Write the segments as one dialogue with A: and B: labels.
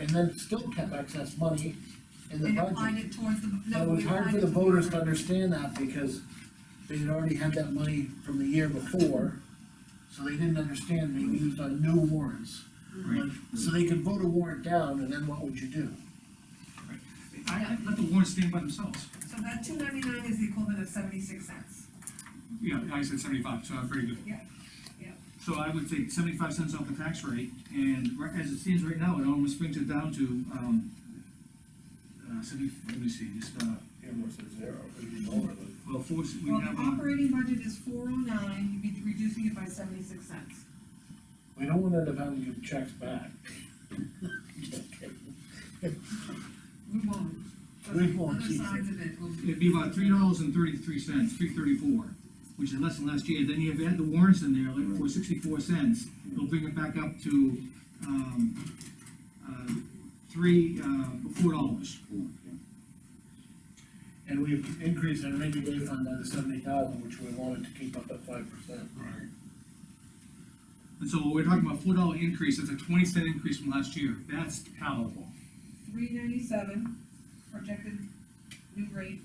A: and then still kept excess money in the
B: and
A: budget.
B: applied it towards the, no.
A: But it
B: we
A: was hard
B: applied
A: for
B: it
A: the
B: to
A: voters to understand that because they had already had that money from the year before. So they didn't understand, they used on new warrants.
C: Right.
A: So they could vote a warrant down and then what would you do?
C: I, I let the warrants stand by themselves.
B: So that two ninety-nine is the equivalent of seventy-six cents.
C: Yeah, I said seventy-five, so I'm very good.
B: Yeah, yeah.
C: So I would take seventy-five cents off the tax rate, and ri- as it stands right now, it almost brings it down to, um, uh, seventy, let me see, just, uh,
D: Almost at zero, it'd be lower than.
C: well, four, we
B: Well, the
C: have, uh,
B: operating budget is four oh nine, you'd be reducing it by seventy-six cents.
A: We don't want to end up having to give checks back.
B: We won't. But
A: We
B: the
A: won't,
B: Other
A: Jesus.
B: sides of it will be.
C: it'd be about three dollars and thirty-three cents, three thirty-four, which is less than last year, then you have had the warrants in there, like, for sixty-four cents, it'll bring it back up to, um, uh, three, uh, four dollars.
A: And we've increased our rainy day fund by the seventy thousand, which we wanted to keep up at five percent.
C: And so we're talking about four dollar increase, that's a twenty cent increase from last year, that's palatable.
B: three ninety-seven, projected new rate,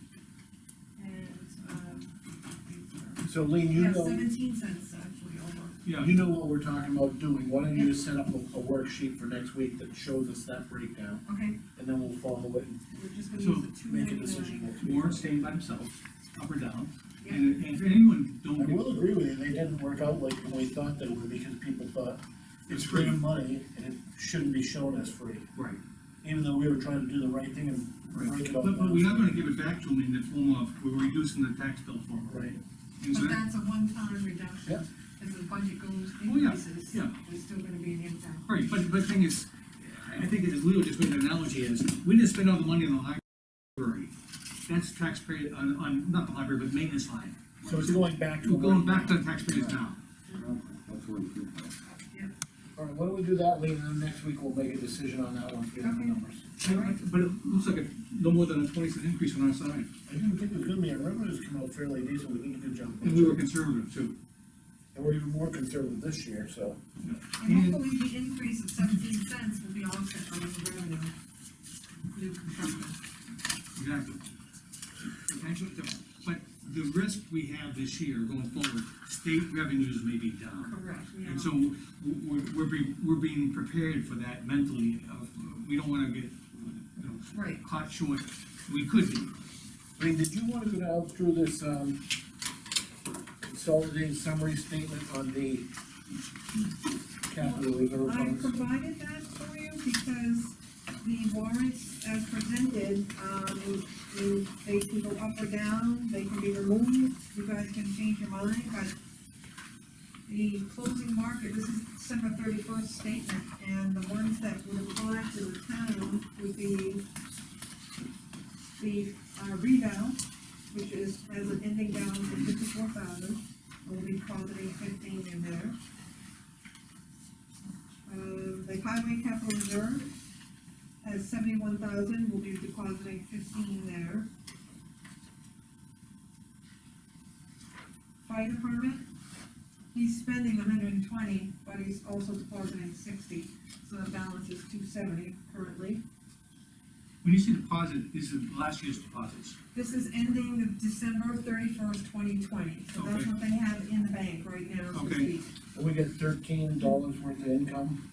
B: and, um,
A: So Lean, you
B: yeah,
A: know,
B: seventeen cents actually over.
C: Yeah,
A: you know what we're talking about doing, why don't you just set up a, a worksheet for next week that shows us that breakdown?
B: Okay,
A: And then we'll follow it and
B: we're just gonna
C: So,
B: use the two
A: make a
B: ninety-nine.
A: decision next week.
C: Warren staying by himself, up or down,
B: Yeah,
C: and, and if anyone
A: I
C: don't get,
A: will agree with you, they didn't work out like we thought they would, because people thought it's free money and it shouldn't be shown as free.
C: right.
A: Even though we were trying to do the right thing and break it
C: But,
A: up.
C: but we are gonna give it back to them in the form of, we're reducing the tax bill for them.
A: Right,
C: And so
B: but
C: that-
B: that's a one-time reduction.
A: Yeah.
B: As the budget goes,
C: Oh, yeah,
B: increases,
C: yeah.
B: there's still gonna be an impact.
C: Right, but, but the thing is, I think as Leo just made an analogy is, we didn't spend all the money on the library. That's taxpayer, on, on, not the library, but maintenance line.
A: so it's going back to.
C: We're going back to the taxpayers now.
D: That's what it is.
A: All right, why don't we do that, Lee, and then next week we'll make a decision on that one, get the
B: Okay.
A: numbers.
C: But it looks like a, no more than a twenty cent increase on our side.
A: I didn't think it was gonna be, our revenues come out fairly decent, we did a good job.
C: And we were conservative too.
A: And we're even more conservative this year, so.
B: And hopefully the increase of seventeen cents will be offset by the revenue, new construction.
C: Exactly. Potential difference. But the risk we have this year going forward, state revenues may be down.
B: Correct.
C: And so w- we're, we're being, we're being prepared for that mentally. of, We don't wanna get, you know,
B: Right,
C: caught short. We could be.
A: Lee, did you wanna go down through this, um, consolidated summary statement on the capital reserve
B: I
A: funds?
B: provided that for you because the warrants as presented, um, you- they can go up or down, they can be removed, you guys can change your mind, but the closing market, this is December thirty-first statement, and the ones that would apply to the town would be the, uh, revale, which is as an ending balance of fifty-four thousand, we'll be positing fifteen in there. Um, the highway capital reserve has seventy-one thousand, we'll be depositing fifteen there. Fire department, he's spending hundred and twenty, but he's also depositing sixty, so the balance is two seventy currently.
C: When you say deposit, this is last year's deposits.
B: This is ending the December thirty-first, twenty twenty, so that's
C: Okay.
B: what they have in the bank right now, so to
C: Okay.
B: speak.
A: And we get thirteen dollars worth of income,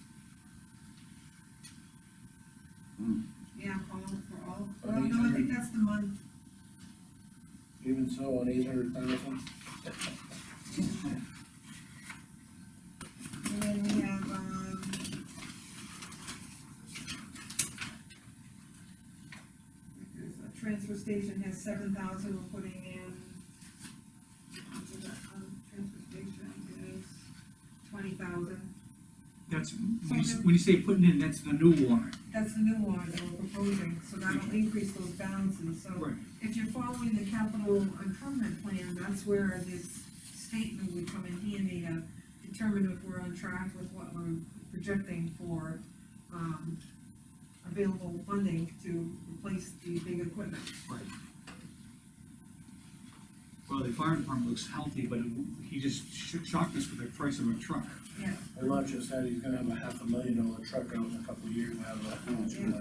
B: Yeah, all, for all,
A: Are
B: well,
A: these
B: no, I
A: under-
B: think that's the month,
A: even so, on eight hundred thousand.
B: And then we have, um. there's a Transfer station has seven thousand, we're putting in. Um, Transfer station is twenty thousand.
C: That's, when you, when you say putting in, that's the new warrant.
B: That's the new one that we're proposing, so that'll increase those balances, so. If you're following the capital improvement plan, that's where this statement would come in handy to determine if we're on track with what we're projecting for, um, available funding to replace the big equipment.
C: Right. well, the fire department looks healthy, but it- he just sh- shocked us with the price of a truck.
B: yeah.
A: And Roger said he's gonna have a half a million dollar truck out in a couple of years, out of that.